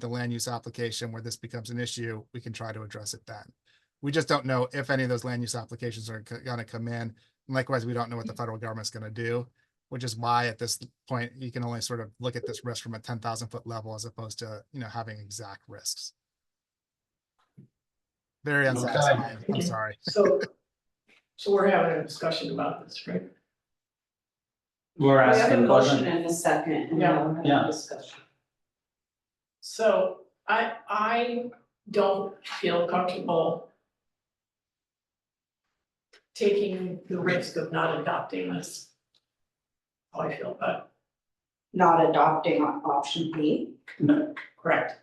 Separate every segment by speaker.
Speaker 1: the land use application where this becomes an issue, we can try to address it then. We just don't know if any of those land use applications are go- gonna come in. And Likewise, we don't know what the federal government's gonna do, which is why at this point, you can only sort of look at this risk from a ten thousand foot level as opposed to, you know, having exact risks. Very
Speaker 2: Okay.
Speaker 1: unsatisfying, I'm sorry.
Speaker 3: So, so we're having a discussion about this, right?
Speaker 2: We're
Speaker 4: We have a
Speaker 2: asking
Speaker 4: motion
Speaker 2: questions.
Speaker 4: and a second, and
Speaker 3: Yeah.
Speaker 4: now we're
Speaker 2: Yeah.
Speaker 4: having a discussion.
Speaker 3: So I, I don't feel comfortable taking the risk of not adopting this. How I feel, but
Speaker 4: Not adopting on option B.
Speaker 3: correct.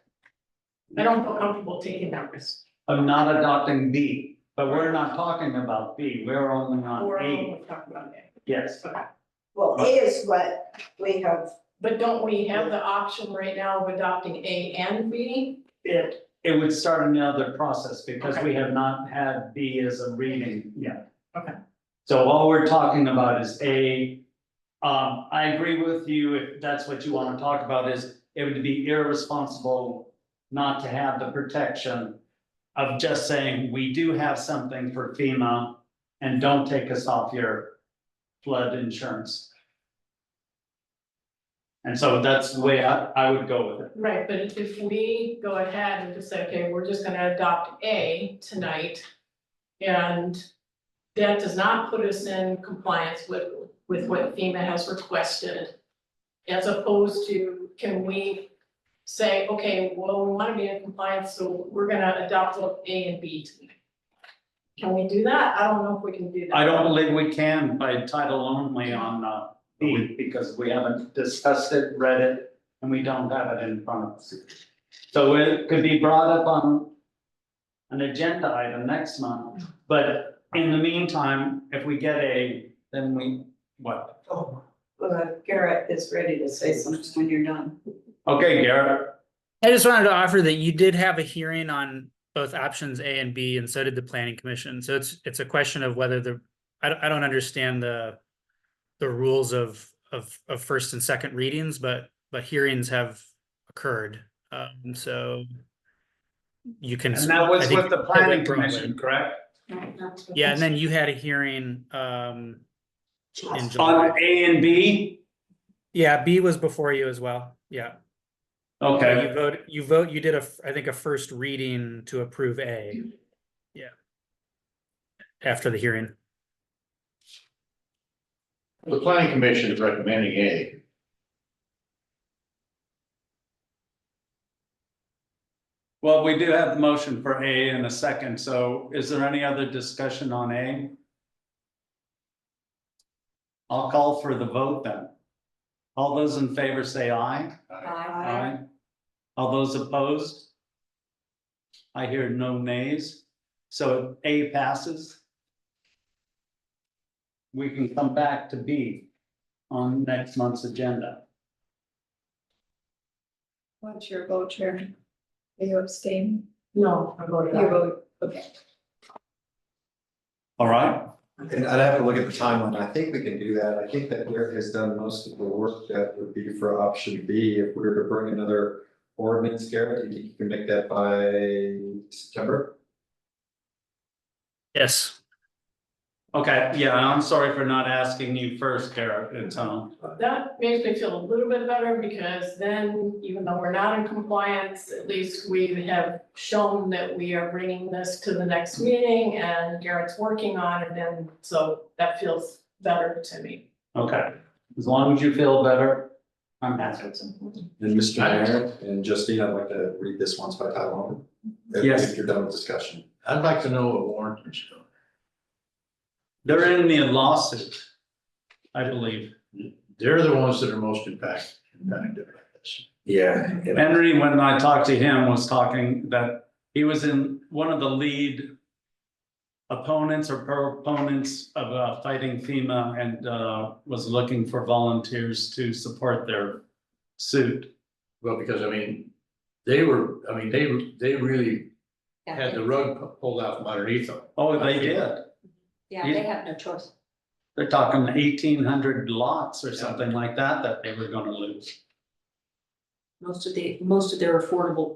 Speaker 3: I don't feel comfortable taking that risk.
Speaker 2: I'm not adopting B, but we're not talking about B, we're only
Speaker 3: Or
Speaker 2: on A,
Speaker 3: we'll talk about it.
Speaker 2: yes.
Speaker 5: Well, A is what we have,
Speaker 3: But don't we have the option right now of adopting A and B?
Speaker 2: It, it would start another process because we have not had B as a reading yet.
Speaker 3: Okay.
Speaker 2: So all we're talking about is A. Um, I agree with you, if that's what you wanna talk about is, it would be irresponsible not to have the protection of just saying, we do have something for FEMA and don't take us off your flood insurance. And so that's the way I, I would go with it.
Speaker 3: Right, but if we go ahead and just say, okay, we're just gonna adopt A tonight. And that does not put us in compliance with, with what FEMA has requested. As opposed to, can we say, okay, well, we wanna be in compliance, so we're gonna adopt both A and B tonight. Can we do that? I don't know if we can do that.
Speaker 2: I don't believe we can by title only on uh B because we haven't discussed it, read it, and we don't have it in front of us. So it could be brought up on an agenda item next month, but in the meantime, if we get a, then we, what?
Speaker 4: Uh, Garrett is ready to say something when you're done.
Speaker 2: Okay, Garrett,
Speaker 6: I just wanted to offer that you did have a hearing on both options A and B, and so did the planning commission. So it's, it's a question of whether the, I don't, I don't understand the. The rules of, of, of first and second readings, but, but hearings have occurred, um, so. You can.
Speaker 2: and that was
Speaker 6: I think
Speaker 2: with the
Speaker 6: you can
Speaker 2: planning
Speaker 6: probably-
Speaker 2: commission, correct?
Speaker 6: Yeah, and then you had a hearing, um, in July.
Speaker 2: On A and B,
Speaker 6: Yeah, B was before you as well, yeah. Yeah,
Speaker 2: okay,
Speaker 6: Oh, You vote, you vote, you did a, f- I think, a first reading to approve A. Yeah. After the hearing.
Speaker 7: The planning commission is recommending A.
Speaker 2: well, we do have the motion for A in a second, so is there any other discussion on A? I'll call for the vote then. All those in favor say aye.
Speaker 4: Aye.
Speaker 2: All those opposed? I hear no nays, so A passes. We can come back to B on next month's agenda.
Speaker 5: what's your vote, Chair? Are you abstaining?
Speaker 3: No, I voted
Speaker 5: Your
Speaker 3: aye.
Speaker 5: vote, okay.
Speaker 2: All right,
Speaker 8: And I'd have to look at the timeline. I think we can do that. I think that Garrett has done most of the work that would be for option B. If we were to bring another ordinance, Garrett, do you think you can make that by September?
Speaker 6: Yes.
Speaker 2: okay, yeah, I'm sorry for not asking you first, uh, Garrett, it's on.
Speaker 3: That makes me feel a little bit better because then even though we're not in compliance, at least we have shown that we are bringing this to the next meeting and Garrett's working on it and so that feels better to me.
Speaker 2: Okay, as long as you feel better, I'm
Speaker 3: That's
Speaker 2: happy.
Speaker 3: what's important.
Speaker 8: And Mr. Mayor and Justine, I'd like to read this once by title only. if-
Speaker 2: Yes.
Speaker 8: If you're done with discussion.
Speaker 7: I'd like to know what warrant is going.
Speaker 2: They're in the lawsuit, I believe.
Speaker 7: They're the ones that are most impact, impacted by this.
Speaker 8: Yeah.
Speaker 2: Henry, when I talked to him, was talking that he was in one of the lead opponents or proponents of uh, fighting FEMA and uh, was looking for volunteers to support their suit.
Speaker 7: Well, because I mean, they were, I mean, they, they really had the rug pu- pulled out from underneath them.
Speaker 2: Oh, they did.
Speaker 4: Yeah, they have no choice.
Speaker 2: They're talking eighteen hundred lots or something like that that they were gonna lose.
Speaker 4: most of the, most of their affordable